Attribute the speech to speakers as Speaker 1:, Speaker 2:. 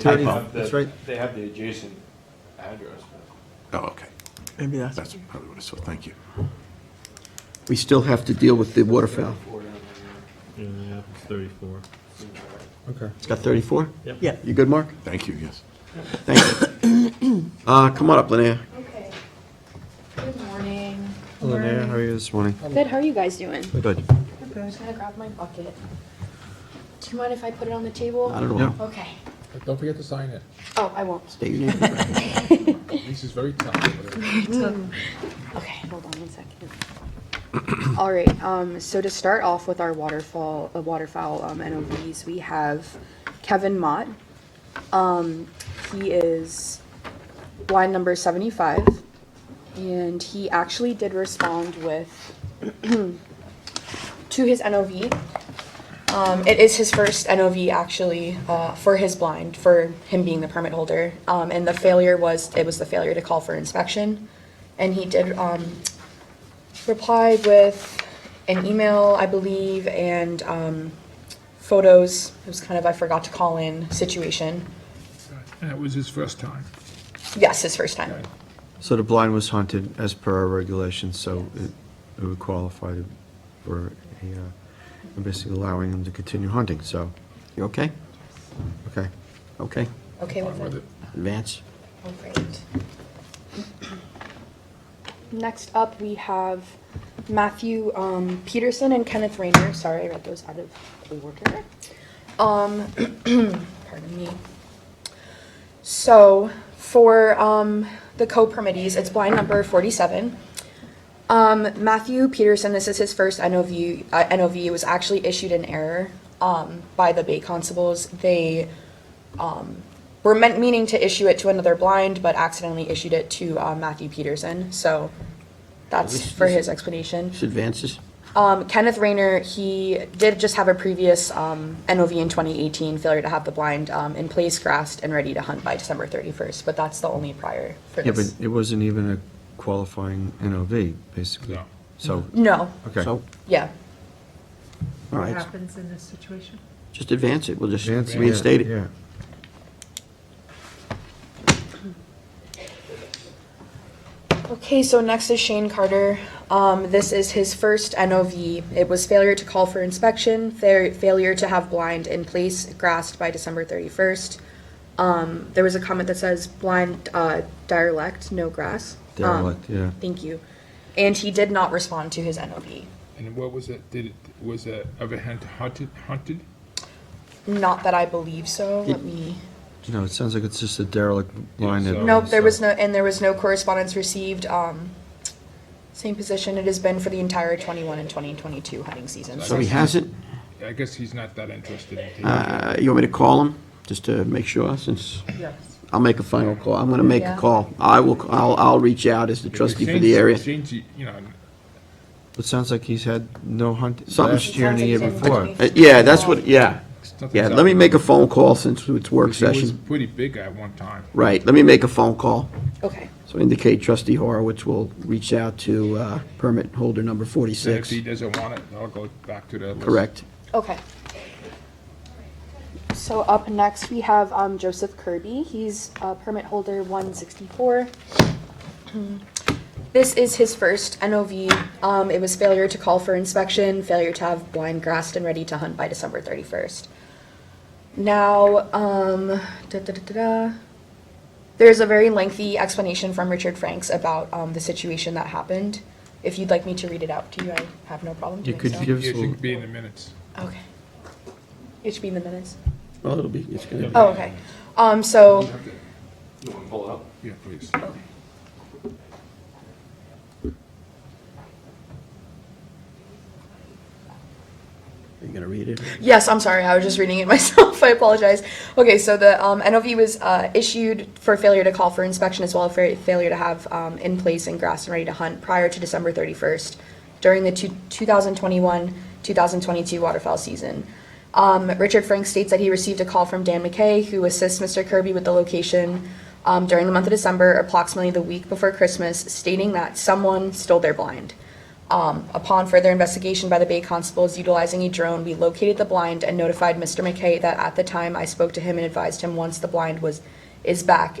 Speaker 1: Typo.
Speaker 2: have the-
Speaker 3: That's right.
Speaker 2: They have the adjacent address, but
Speaker 1: Oh, okay.
Speaker 4: Maybe that's,
Speaker 1: That's probably what I saw. Thank you.
Speaker 3: We still have to deal with the waterfowl.
Speaker 2: four down there,
Speaker 5: Yeah, yeah, it's 34.
Speaker 2: seems right.
Speaker 3: It's got 34?
Speaker 4: yeah,
Speaker 3: You good, Mark?
Speaker 1: Thank you, yes.
Speaker 3: Thank you. Uh, come on up, Linnea.
Speaker 6: Okay. Good morning.
Speaker 7: Hello, Naya. How are you this morning?
Speaker 6: Good, how are you guys doing?
Speaker 7: Good.
Speaker 6: I'm just gonna grab my bucket. Do you mind if I put it on the table?
Speaker 3: Not at all.
Speaker 6: Okay.
Speaker 8: But don't forget to sign it.
Speaker 6: Oh, I won't.
Speaker 3: State your name.
Speaker 8: This is very tough. but-
Speaker 6: Okay, hold on one second. All right, um, so to start off with our waterfall, uh, waterfowl, um, NOVs, we have Kevin Mott. Um, he is line number seventy-five, and he actually did respond with, to his NOV. Um, it is his first NOV actually, uh, for his blind, for him being the permit holder. Um, and the failure was, it was the failure to call for inspection. And he did, um, reply with an email, I believe, and, um, photos. It was kind of, I forgot to call in situation.
Speaker 8: And it was his first time.
Speaker 6: Yes, his first time.
Speaker 7: So the blind was hunted as per our regulations, so it it would qualify to- for a, uh, I'm basically allowing him to continue hunting, so,
Speaker 3: You okay?
Speaker 7: okay.
Speaker 3: Okay.
Speaker 6: Okay with
Speaker 8: With
Speaker 6: that?
Speaker 8: it.
Speaker 3: Advance.
Speaker 6: Oh, great. Next up, we have Matthew um, Peterson and Kenneth Rayner. Sorry, I read those out of order. Um, pardon me. So for um, the co-permittees, it's blind number 47. Um, Matthew Peterson, this is his first NOV. Uh, NOV It was actually issued in error um, by the Bay Constables. They um, were meant meaning to issue it to another blind, but accidentally issued it to uh, Matthew Peterson. So that's for his explanation.
Speaker 3: This advances.
Speaker 6: Um, Kenneth Rayner, he did just have a previous um, NOV in 2018 failure to have the blind um, in place, grassed, and ready to hunt by December 31st. But that's the only prior for
Speaker 7: Yeah, but
Speaker 6: this.
Speaker 7: it wasn't even a qualifying NOV, basically.
Speaker 8: No.
Speaker 7: So,
Speaker 6: no.
Speaker 7: okay.
Speaker 3: So,
Speaker 6: Yeah.
Speaker 3: all
Speaker 9: What
Speaker 3: right.
Speaker 9: happens in this situation?
Speaker 3: Just advance it. We'll just
Speaker 7: Advance, yeah,
Speaker 3: reinstate it.
Speaker 7: Yeah.
Speaker 6: Okay, so next is Shane Carter. Um, this is his first NOV. It was failure to call for inspection, fair, failure to have blind in place, grassed by December 31st. Um, there was a comment that says blind uh, direlect, no grass. Um,
Speaker 7: Derelict, yeah.
Speaker 6: Thank you. And he did not respond to his NOV.
Speaker 8: And what was it, did it, was it ever hunt- hunted, hunted?
Speaker 6: Not that I believe so. Let me.
Speaker 7: You know, it sounds like it's just a derelict blind.
Speaker 8: Yeah, so-
Speaker 3: Oh,
Speaker 7: that-
Speaker 6: Nope, there was no, and there was no correspondence received. Um, same position it has been for the entire 21 and 2022 hunting season.
Speaker 3: So he has it.
Speaker 8: I guess he's not that interested in taking it.
Speaker 3: Uh, you want me to call him just to make sure since
Speaker 9: Yes.
Speaker 3: I'll make a final call. I'm going to make a
Speaker 6: Yeah.
Speaker 3: call. I will, I'll, I'll reach out as the trustee for the
Speaker 8: Shane's-
Speaker 3: area.
Speaker 8: Shane's, you know,
Speaker 7: It sounds like he's had no hunt
Speaker 3: Something-
Speaker 7: last year and the year
Speaker 6: Sounds like
Speaker 7: before.
Speaker 6: something-
Speaker 3: Uh, Yeah, that's what, yeah.
Speaker 8: something's
Speaker 3: Yeah, let
Speaker 8: up.
Speaker 3: me make a phone call since it's work
Speaker 8: 'Cause He was
Speaker 3: session.
Speaker 8: pretty big at one time.
Speaker 3: Right, let me make a phone call.
Speaker 6: Okay.
Speaker 3: So indicate trustee Horowitz will reach out to uh, permit holder number
Speaker 8: So if
Speaker 3: 46.
Speaker 8: he doesn't want it, I'll go back to the list.
Speaker 3: Correct.
Speaker 6: Okay. So up next, we have um, Joseph Kirby. He's uh, permit holder 164. This is his first NOV. Um, It was failure to call for inspection, failure to have blind grassed and ready to hunt by December 31st. Now, um, da-da-da-da-da. There's a very lengthy explanation from Richard Franks about um, the situation that happened. If you'd like me to read it out to you, I have no problem
Speaker 7: You
Speaker 6: doing
Speaker 7: could
Speaker 6: so.
Speaker 7: give
Speaker 8: It
Speaker 7: some,
Speaker 8: should be in the minutes.
Speaker 6: Okay. It should be in the minutes.
Speaker 3: Well, it'll be, it's going to
Speaker 6: Oh, okay. Um, so,
Speaker 2: You want to pull it up?
Speaker 8: Yeah, please.
Speaker 3: be, you going to read it?
Speaker 6: yes, I'm sorry, I was just reading it myself, I apologize. Okay, so the, um, NOV was, uh, issued for failure to call for inspection as well as for failure to have, um, in place and grass and ready to hunt prior to December thirty-first during the two, two thousand twenty-one, two thousand twenty-two waterfowl season. Um, Richard Frank states that he received a call from Dan McKay, who assists Mr. Kirby with the location, um, during the month of December, approximately the week before Christmas, stating that someone stole their blind. Um, upon further investigation by the Bay Constables utilizing a drone, we located the blind and notified Mr. McKay that at the time I spoke to him and advised him once the blind was, is back,